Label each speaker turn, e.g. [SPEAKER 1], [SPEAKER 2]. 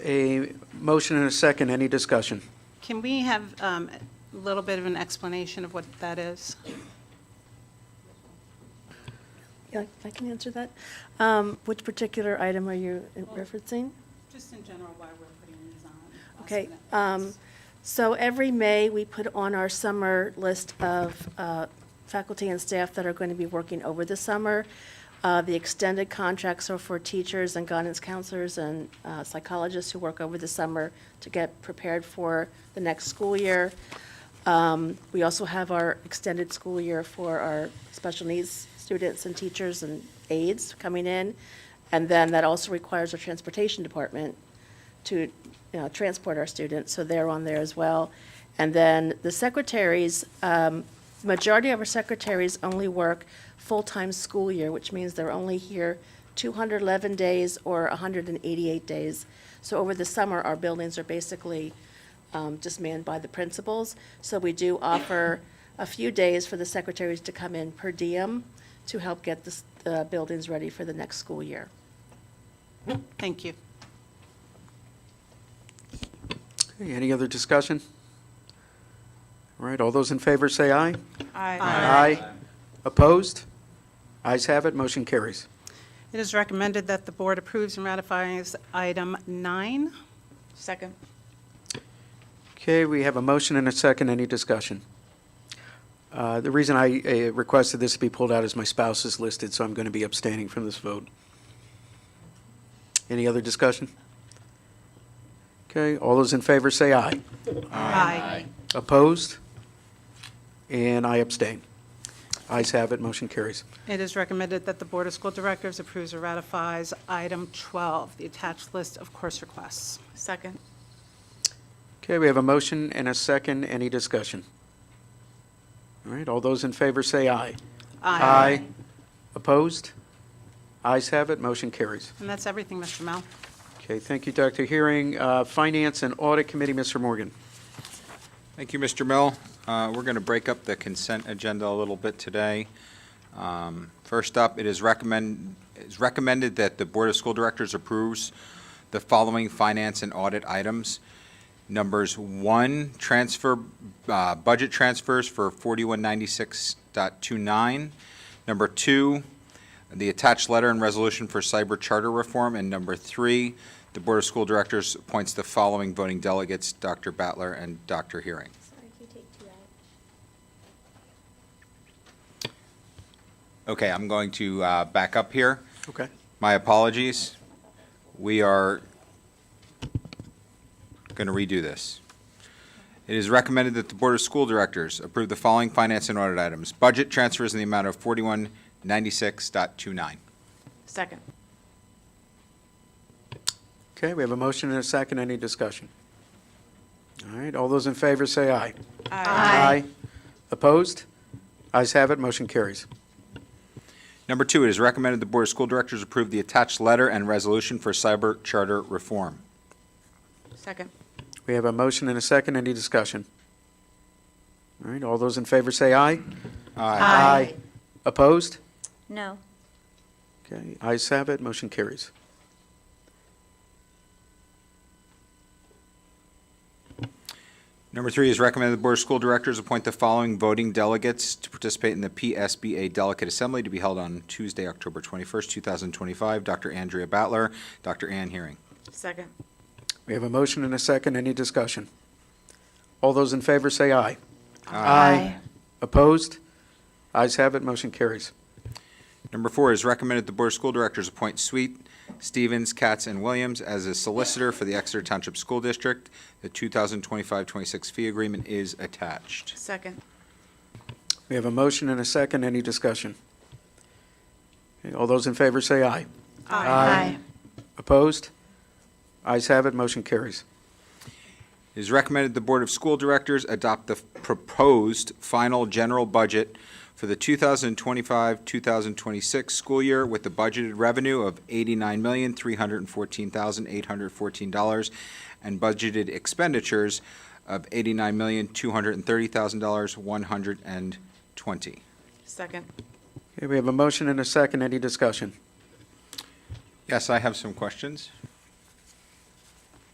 [SPEAKER 1] Motion and a second, any discussion?
[SPEAKER 2] Can we have um, a little bit of an explanation of what that is?
[SPEAKER 3] Yeah, I can answer that. Um, Which particular item are you referencing?
[SPEAKER 2] Just in general, why we're putting these on.
[SPEAKER 3] Okay, um, so every May, we put on our summer list of uh, faculty and staff that are going to be working over the summer. Uh, The extended contracts are for teachers and guidance counselors and uh, psychologists who work over the summer to get prepared for the next school year. Um, We also have our extended school year for our special needs students and teachers and aides coming in. And then that also requires our transportation department to, you know, transport our students, so they're on there as well. And then the secretaries, um, majority of our secretaries only work full-time school year, which means they're only here 211 days or 188 days. So over the summer, our buildings are basically um, just manned by the principals. So we do offer a few days for the secretaries to come in per diem to help get the s- the buildings ready for the next school year.
[SPEAKER 2] Thank you.
[SPEAKER 1] Okay, Any other discussion? All right, all those in favor say aye. Aye. Opposed? Ayes have it, motion carries.
[SPEAKER 2] It is recommended that the board approves and ratifies item nine.
[SPEAKER 4] Second.
[SPEAKER 1] Okay, we have a motion and a second, any discussion? Uh, The reason I uh, requested this to be pulled out is my spouse is listed, so I'm going to be abstaining from this vote. Any other discussion? Okay, all those in favor say aye.
[SPEAKER 2] Aye.
[SPEAKER 1] Opposed? And I abstain. Ayes have it, motion carries.
[SPEAKER 2] It is recommended that the Board of School Directors approves or ratifies item 12, the attached list of course requests.
[SPEAKER 4] Second.
[SPEAKER 1] Okay, we have a motion and a second, any discussion? All right, all those in favor say aye. Opposed? Ayes have it, motion carries.
[SPEAKER 2] And that's everything, Mr. Mel.
[SPEAKER 1] Okay, thank you, Dr. Hearing. Uh, Finance and Audit Committee, Mr. Morgan.
[SPEAKER 5] Thank you, Mr. Mill. Uh, We're going to break up the consent agenda a little bit today. Um, First up, it is recommend, it's recommended that the Board of School Directors approves the following finance and audit items. Numbers one, transfer, uh, budget transfers for 4196.29. Number two, the attached letter and resolution for cyber charter reform. And number three, the Board of School Directors appoints the following voting delegates, Dr. Battler and Dr. Hearing.
[SPEAKER 6] Sorry, can you take two out?
[SPEAKER 5] Okay, I'm going to uh, back up here.
[SPEAKER 1] Okay.
[SPEAKER 5] My apologies. We are going to redo this. It is recommended that the Board of School Directors approve the following finance and audit items. Budget transfers in the amount of 4196.29.
[SPEAKER 4] Second.
[SPEAKER 1] Okay, we have a motion and a second, any discussion? All right, all those in favor say aye. Aye. Opposed? Ayes have it, motion carries.
[SPEAKER 5] Number two, it is recommended the Board of School Directors approve the attached letter and resolution for cyber charter reform.
[SPEAKER 4] Second.
[SPEAKER 1] We have a motion and a second, any discussion? All right, all those in favor say aye. Aye. Opposed?
[SPEAKER 6] No.
[SPEAKER 1] Okay, ayes have it, motion carries.
[SPEAKER 5] Number three is recommended the Board of School Directors appoint the following voting delegates to participate in the PSBA Delegate Assembly to be held on Tuesday, October 21st, 2025. Dr. Andrea Battler, Dr. Ann Hearing.
[SPEAKER 4] Second.
[SPEAKER 1] We have a motion and a second, any discussion? All those in favor say aye. Opposed? Ayes have it, motion carries.
[SPEAKER 5] Number four is recommended the Board of School Directors appoint Sweet, Stevens, Katz, and Williams as a solicitor for the Exeter Township School District. The 2025-26 fee agreement is attached.
[SPEAKER 4] Second.
[SPEAKER 1] We have a motion and a second, any discussion? Okay, All those in favor say aye. Aye. Opposed? Ayes have it, motion carries.
[SPEAKER 5] It is recommended the Board of School Directors adopt the proposed final general budget for the 2025-2026 school year with a budgeted revenue of $89,314,814 and budgeted expenditures of $89,230,120.
[SPEAKER 4] Second.
[SPEAKER 1] Okay, we have a motion and a second, any discussion?
[SPEAKER 5] Yes, I have some questions.